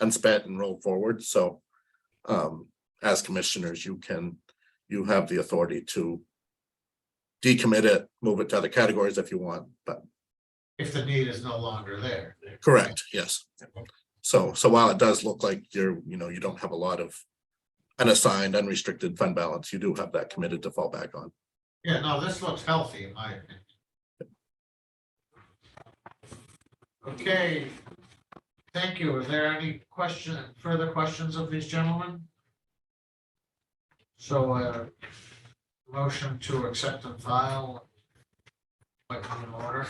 unspent and roll forward, so. Um, as commissioners, you can, you have the authority to. Decommit it, move it to other categories if you want, but if the need is no longer there. correct, yes. So, so while it does look like you're, you know, you don't have a lot of. Unassigned, unrestricted fund balance, you do have that committed to fall back on. Yeah, no, this looks healthy in my opinion. Okay, thank you. Are there any question, further questions of these gentlemen? So, uh, motion to accept and file. Like in order,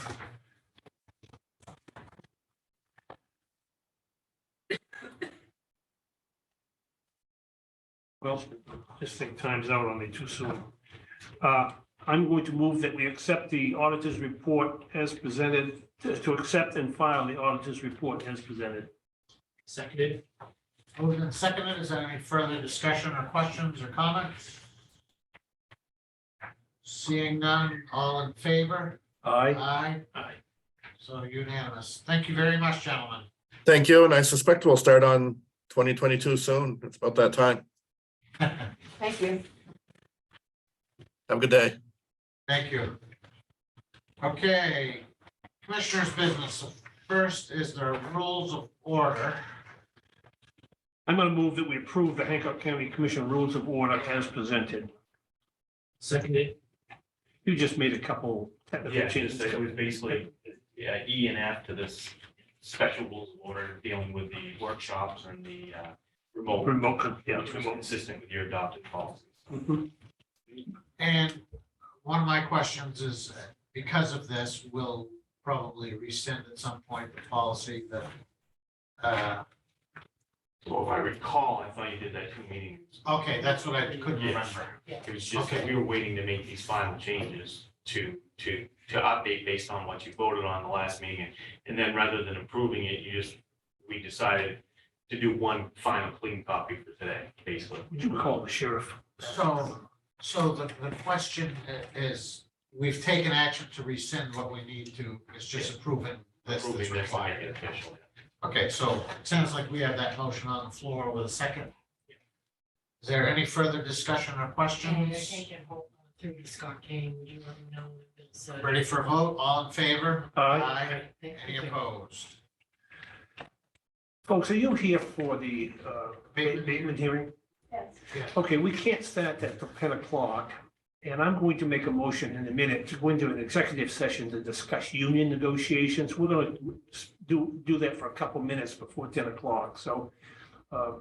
Well, this thing times out on me too soon. Uh, I'm going to move that we accept the auditor's report as presented, to accept and file the auditor's report as presented. Seconded, moved and seconded. Is there any further discussion or questions or comments? Seeing none, all in favor? Aye. Aye. aye. So unanimous. Thank you very much, gentlemen. Thank you, and I suspect we'll start on twenty twenty-two soon. It's about that time. Thank you. Have a good day. Thank you. Okay, commissioners' business. First is the rules of order. I'm going to move that we approve the Hancock County Commission Rules of Order as presented. Seconded, You just made a couple technical Yeah, just changes. that it was basically, yeah, E and F to this special rules of order dealing with the workshops and the uh, remote, Remote, con- yeah, which was remote. consistent with your adopted policies. Mhm. And one of my questions is, uh, because of this, we'll probably rescind at some point the policy that uh, Well, if I recall, I thought you did that two meetings. okay, that's what I couldn't remember. It was just that Okay. we were waiting to make these final changes to, to, to update based on what you voted on the last meeting. And then rather than approving it, you just, we decided to do one final clean copy for today, basically. Would you call the sheriff? So, so the, the question i- is, we've taken action to rescind what we need to, it's just approving this that's Approving this and making required. it official. Okay, so it sounds like we have that motion on the floor with a second. Is there any further discussion or And I questions? think it hold on through the Scott Kane, you already know that it's, uh, Ready for a vote? All in favor? Aye. Aye. thank Any you. opposed? Folks, are you here for the uh, ba- abatement hearing? Okay, we can't start at the ten o'clock, and I'm going to make a motion in a minute to go into an executive session to discuss union negotiations. We're gonna do, do that for a couple minutes before ten o'clock, so uh,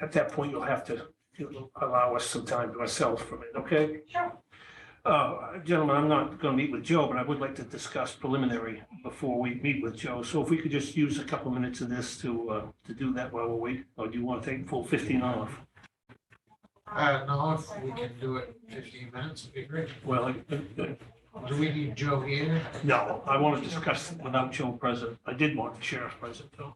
at that point, you'll have to you'll allow us some time to ourselves for a minute, okay? Sure. Uh, gentlemen, I'm not gonna meet with Joe, but I would like to discuss preliminary before we meet with Joe. So if we could just use a couple minutes of this to, uh, to do that while we wait, or do you want to take full fifteen off? Uh, no, if we can do it in fifteen minutes, it'd be great. Well, uh, Do we need Joe here? No, I want to discuss it without Joe present. I did want the sheriff present though.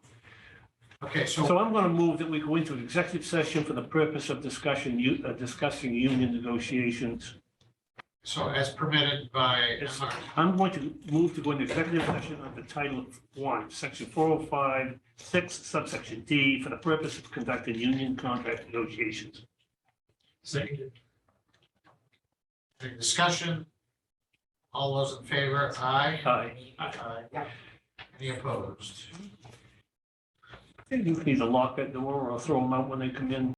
Okay, so, So I'm going to move that we go into executive session for the purpose of discussion, u- uh, discussing union negotiations. so as permitted by Yes. MR. I'm going to move to go into executive session under Title One, Section four oh five, six subsection D for the purpose of conducting union contract negotiations. seconded, Any discussion? All those in favor, aye. Aye. Aye. Any opposed? You can either lock that door or throw them out when they come in.